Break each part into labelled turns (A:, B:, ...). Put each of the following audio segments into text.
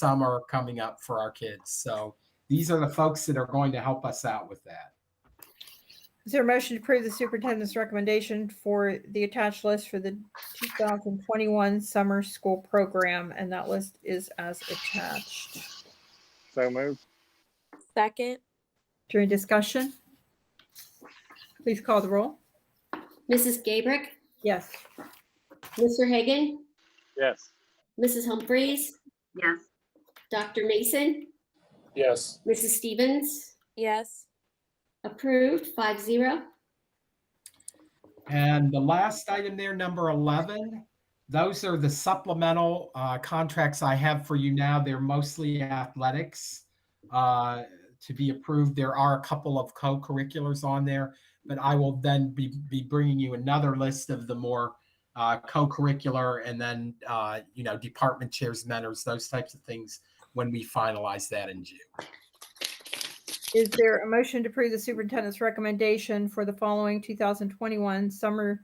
A: summer coming up for our kids. So these are the folks that are going to help us out with that.
B: Is there a motion to approve the superintendent's recommendation for the attached list for the 2021 summer school program? And that list is as attached.
C: So moved.
D: Second,
B: During discussion? Please call the roll.
E: Mrs. Gabrick,
B: Yes.
E: Mr. Hagan,
C: Yes.
E: Mrs. Humphries,
F: Yes,
E: Dr. Mason,
C: Yes.
E: Mrs. Stevens,
D: yes.
E: approved, five zero.
A: And the last item there, number 11, those are the supplemental uh, contracts I have for you now. They're mostly athletics uh, to be approved. There are a couple of co-curriculars on there, but I will then be, be bringing you another list of the more uh, co-curricular and then, uh, you know, department chairs, mentors, those types of things when we finalize that in June.
B: Is there a motion to approve the superintendent's recommendation for the following 2021 summer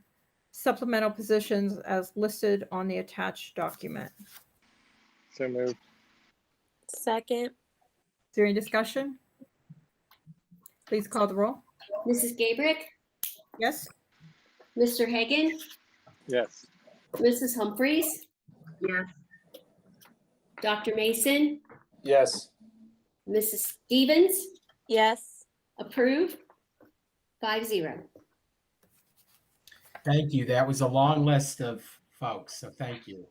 B: supplemental positions as listed on the attached document?
C: So moved.
D: Second,
B: Is there any discussion? Please call the roll.
E: Mrs. Gabrick,
B: Yes.
E: Mr. Hagan,
C: Yes.
E: Mrs. Humphries,
F: yes,
E: Dr. Mason,
C: Yes.
E: Mrs. Stevens,
D: yes.
E: approved, five zero.
A: Thank you. That was a long list of folks, so thank you.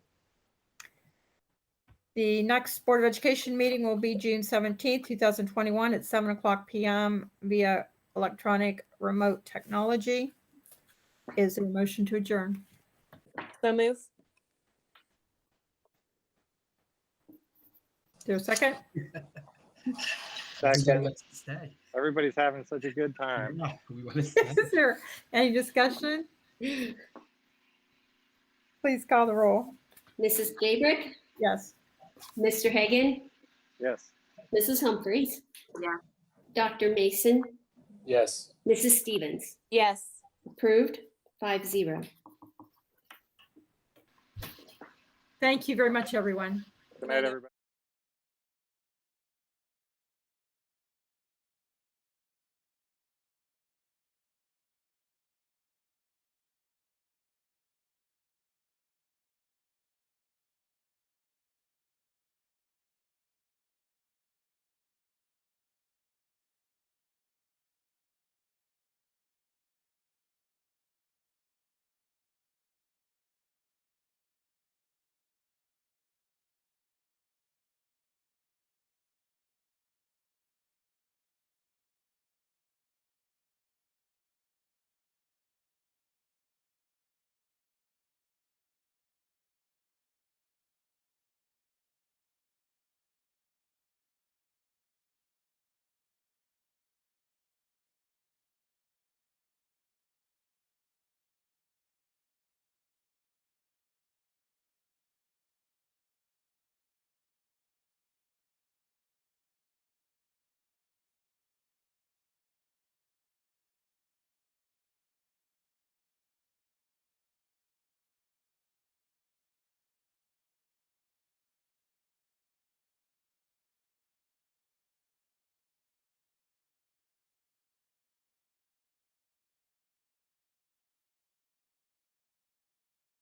B: The next Board of Education meeting will be June seventeenth, two thousand twenty-one at seven o'clock PM via electronic remote technology. Is there a motion to adjourn?
D: So move.
B: Is there a second?
C: Second.
A: Stay.
C: Everybody's having such a good time.
A: No, we want to stay.
B: Is there any discussion? Please call the roll.
E: Mrs. Gabrick,
B: Yes.
E: Mr. Hagan,
C: Yes.
E: Mrs. Humphries.
F: Yeah.
E: Dr. Mason,
C: Yes.
E: Mrs. Stevens,
D: Yes.
E: approved, five zero.
B: Thank you very much, everyone.
C: Good night, everybody.